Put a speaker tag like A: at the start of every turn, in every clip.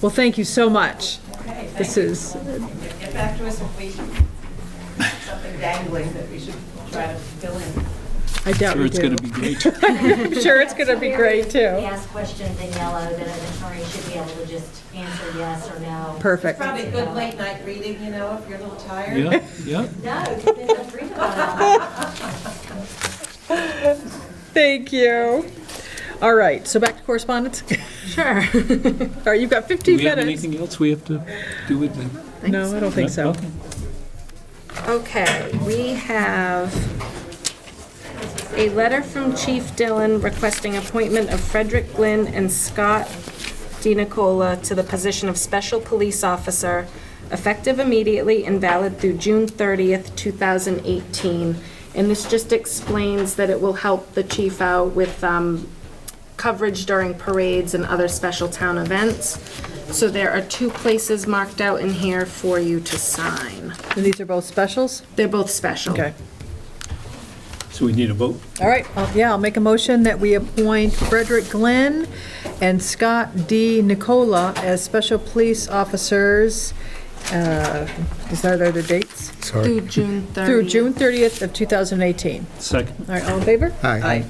A: Well, thank you so much.
B: Okay,
A: This
B: thank you.
A: is,
B: Get back to us if we, something dangling that we should try to fill in.
A: I doubt
C: Sure,
A: we
C: it's going
A: do.
C: to be great.
A: I'm sure it's going to be great,
D: We
A: too.
D: ask questions in yellow that an attorney should be able to just answer yes or no.
A: Perfect.
B: Probably good late night reading, you know, if you're a little tired.
C: Yeah, yeah.
D: No, then let's read about it.
A: Thank you. All right, so back to correspondence? Sure. All right, you've got
C: Do
A: 15
C: we have
A: minutes.
C: anything else we have to do with the?
A: No, I don't think so.
C: Okay.
E: Okay, we have a letter from Chief Dillon requesting appointment of Frederick Glynn and Scott DiNicola to the position of Special Police Officer, effective immediately and valid through June 30th, 2018. And this just explains that it will help the chief out with um, coverage during parades and other special town events. So there are two places marked out in here for you to sign.
A: And these are both specials?
E: They're both special.
A: Okay.
C: So we need a vote?
A: All right, I'll- yeah, I'll make a motion that we appoint Frederick Glenn and Scott D. Nicola as special police officers. uh, Is that other dates?
E: Through June 30th.
A: Through June 30th of 2018.
C: Second.
A: All right, all in favor?
F: Aye.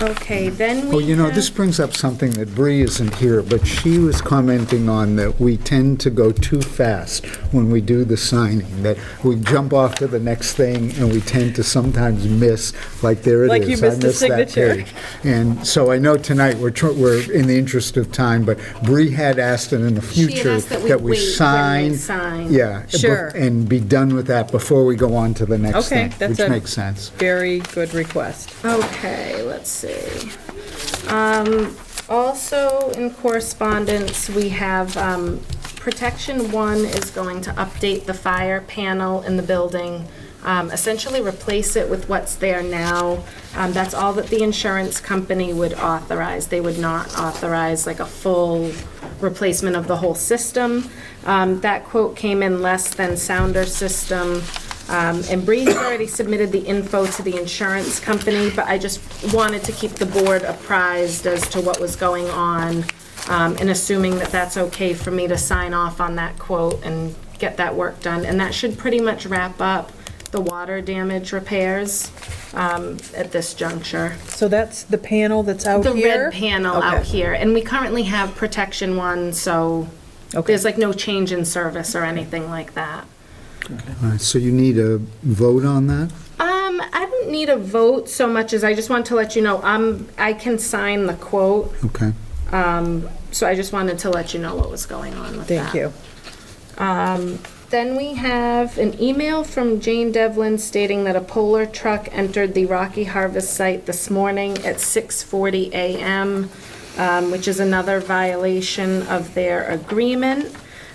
E: Okay, then we
F: Well, you know, this
E: have-
F: brings up something that Bree isn't here, but she was commenting on that we tend to go too fast when we do the signing, that we jump off to the next thing and we tend to sometimes miss, like there it is.
A: Like you
F: I
A: missed the
F: missed that
A: signature.
F: page. And so I know tonight, we're, tr- we're in the interest of time, but Bree had asked that in the
E: She had
F: future
E: asked that we
F: that we
E: wait when we
F: sign.
E: sign.
F: Yeah. bef-
A: Sure.
F: And be done with that before we go on to the next
A: Okay,
F: thing.
A: that's a-
F: Which makes sense.
A: Very good request.
E: Okay, let's see. Um, Also, in correspondence, we have um, Protection One is going to update the fire panel in the building, um, essentially replace it with what's there now. Um, That's all that the insurance company would authorize. They would not authorize like a full replacement of the whole system. Um, That quote came in less than Sounder System. Um, And Bree's already submitted the info to the insurance company, but I just wanted to keep the board apprised as to what was going on, um, and assuming that that's okay for me to sign off on that quote and get that work done. And that should pretty much wrap up the water damage repairs um, at this juncture.
A: So that's the panel that's out
E: The
A: here?
E: red panel out
A: Okay.
E: here, and we currently have protection one, so there's like no change in service or anything like that.
F: All right, So you need a vote on that?
E: Um, I don't need a vote so much as I just want to let you know, um, I can sign the quote,
F: Okay.
E: so I just wanted to let you know what was going on with that.
A: Thank you.
E: Then we have an email from Jane Devlin stating that a polar truck entered the Rocky Harvest site this morning at 6:40 a.m., um, which is another violation of their agreement.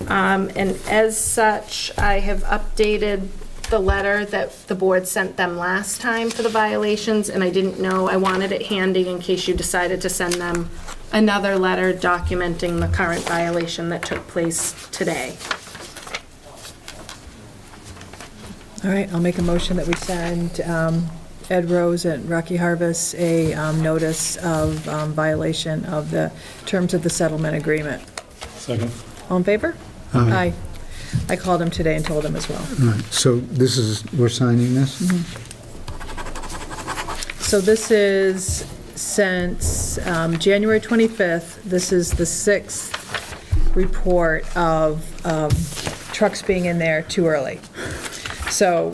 E: Um, And as such, I have updated the letter that the board sent them last time for the violations, and I didn't know, I wanted it handy in case you decided to send them another letter documenting the current violation that took place today.
A: All right, I'll make a motion that we send um, Ed Rose and Rocky Harvest a um, notice of um, violation of the terms of the settlement agreement.
C: Second.
A: All in favor? Aye. I called him today and told him as well.
F: All right, so this is, we're signing this?
A: Mm-hmm. So this is since um, January 25th, this is the sixth report of um, trucks being in there too early. So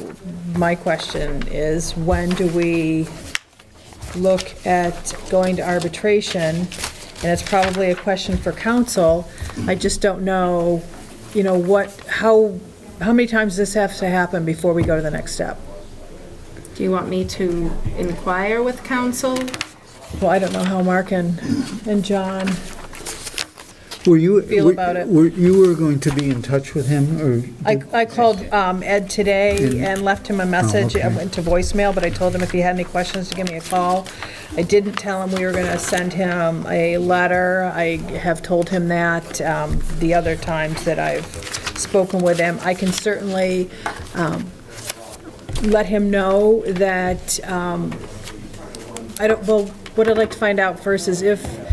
A: my question is, when do we look at going to arbitration? And it's probably a question for council. I just don't know, you know, what, how, how many times this has to happen before we go to the next step?
E: Do you want me to inquire with council?
A: Well, I don't know how Mark and, and John,
F: Were you?
A: Feel
F: were-
A: about it.
F: Were, you were going to be in touch with him, or?
A: I, I called um, Ed today and left him a message, it
F: okay.
A: went to voicemail, but I told him if he had any questions to give me a call. I didn't tell him we were gonna send him a letter, I have told him that um, the other times that I've spoken with him. I can certainly um, let him know that, um, I don't, well, what I'd like to find out first is if